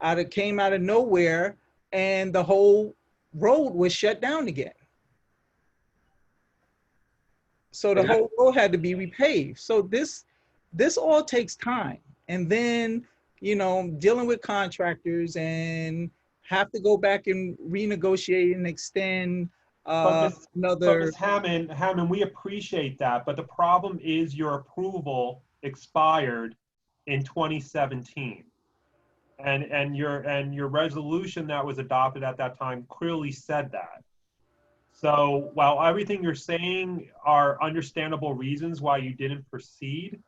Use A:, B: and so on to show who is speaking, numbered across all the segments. A: out of came out of nowhere and the whole road was shut down again. So the
B: Yeah.
A: whole road had to be repaved. So this this all takes time. And then, you know, dealing with contractors and have to go back and renegotiate and extend uh,
B: But Ms. So,
A: another
B: Ms. Hammond, Hammond, we appreciate that, but the problem is your approval expired in 2017. And, and your, and your resolution that was adopted at that time clearly said that. So while everything you're saying are understandable reasons why you didn't proceed,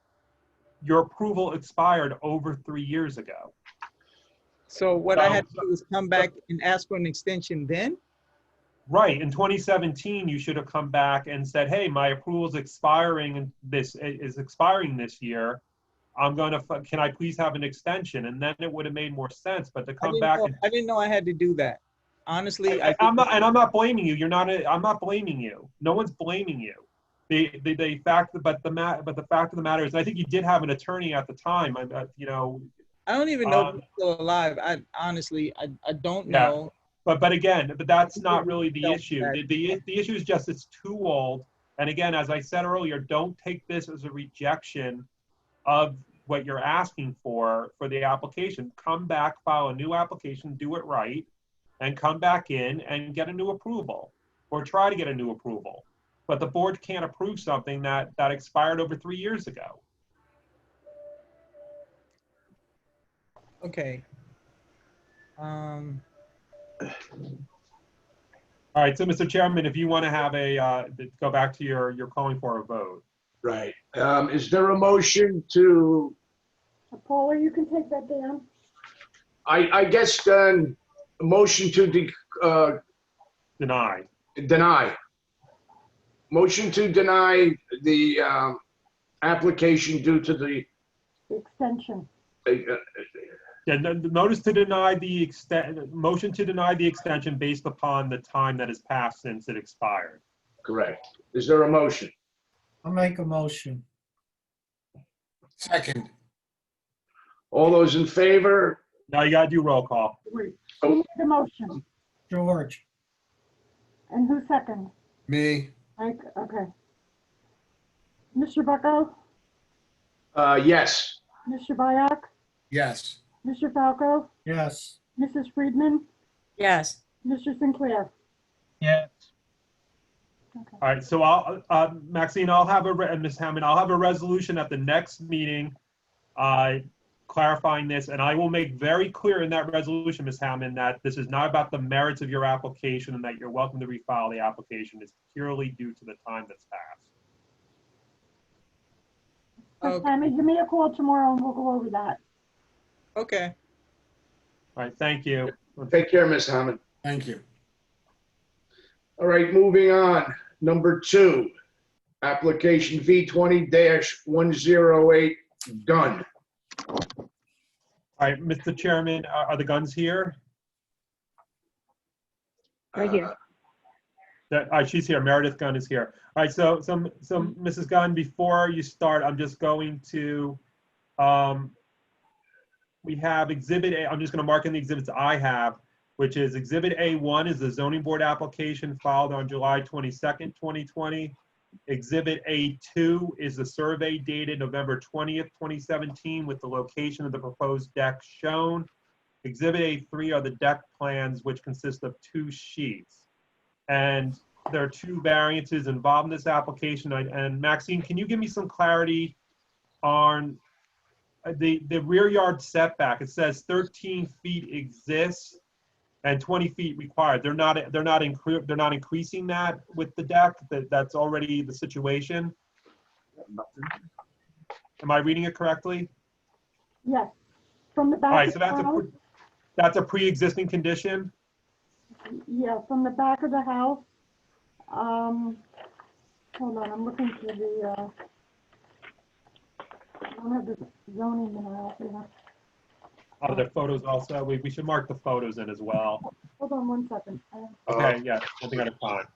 B: your approval expired over three years ago.
A: So what I had to
B: So-
A: do was come back and ask for an extension then?
B: Right, in 2017, you should have come back and said, hey, my approval's expiring and this, is expiring this year. I'm gonna, f- can I please have an extension? And then it would have made more sense, but to
A: I
B: come
A: didn't
B: back
A: know,
B: and.
A: I didn't know I had to do that. Honestly, I,
B: I- I'm not, and I'm not blaming you, you're not, a- I'm not blaming you. No one's blaming you. The, the, the fact, but the ma, but the fact of the matter is, and I think you did have an attorney at the time, I, I- you know,
A: I don't even know if
B: Um,
A: he's still alive. I honestly, I, I don't
B: Yeah.
A: know.
B: But, but again, but that's not really the
A: Don't
B: issue.
A: back-
B: The, the, the issue is just it's too old. And again, as I said earlier, don't take this as a rejection of what you're asking for, for the application. Come back, file a new application, do it right, and come back in and get a new approval, or try to get a new approval. But the board can't approve something that, that expired over three years ago.
A: Okay. Um,
B: All right, so Mr. Chairman, if you want to have a, uh, go back to your, your calling for a vote.
C: Right. Um, is there a motion to,
D: Paula, you can take that down.
C: I, I guess then, a motion to de- uh,
B: Denied.
C: deny? Motion to deny the, um, application due to the,
D: The extension.
C: uh, uh,
B: Yeah, no- the notice to deny the extent, motion to deny the extension based upon the time that has passed since it expired.
C: correct. Is there a motion?
E: I'll make a motion.
F: Second,
C: All those in favor?
B: Now you gotta do roll call.
D: Wait, Who made the motion?
E: George,
D: And who second?
F: me,
D: Mike, okay. Mr. Bucko,
C: Uh, yes.
D: Mr. Byak,
F: yes.
D: Mr. Falco,
E: yes.
D: Mrs. Friedman,
G: yes.
D: Mr. Sinclair.
E: Yes.
D: Okay.
B: All right, so I'll, uh, Maxine, I'll have a, re- and Ms. Hammond, I'll have a resolution at the next meeting, uh, clarifying this, and I will make very clear in that resolution, Ms. Hammond, that this is not about the merits of your application and that you're welcome to refile the application. It's purely due to the time that's passed.
A: Okay.
D: Tammy, give me a call tomorrow and we'll go over that.
A: okay.
B: All right, thank you.
C: Take care, Ms. Hammond.
F: Thank you.
C: All right, moving on. Number two, application V twenty one zero eight Gun.
B: All right, Mr. Chairman, are are the guns here?
H: Right here.
C: Uh,
B: That, all right, she's here. Meredith Gunn is here. All right, so, so, so Mrs. Gunn, before you start, I'm just going to, um, we have Exhibit A, I'm just gonna mark in the exhibits I have, which is Exhibit A1 is the zoning board application filed on July 22nd, 2020. Exhibit A2 is the survey dated November 20th, 2017, with the location of the proposed deck shown. Exhibit A3 are the deck plans, which consist of two sheets. And there are two variances involved in this application. I- And Maxine, can you give me some clarity on uh, the, the rear yard setback? It says 13 feet exists and 20 feet required. They're not, they're not, incre- they're not increasing that with the deck? That, that's already the situation? Am I reading it correctly?
D: Yes, from the
B: All
D: back
B: right,
D: of
B: so
D: the
B: that's a,
D: house.
B: pre- that's a pre-existing condition?
D: Yeah, from the back of the house. Um, hold on, I'm looking for the, uh, I don't have the zoning now, yeah.
B: Are Oh, there photos also? We, we should mark the photos in as well.
D: Hold on one second. I-
B: Okay, yeah, one thing at a time.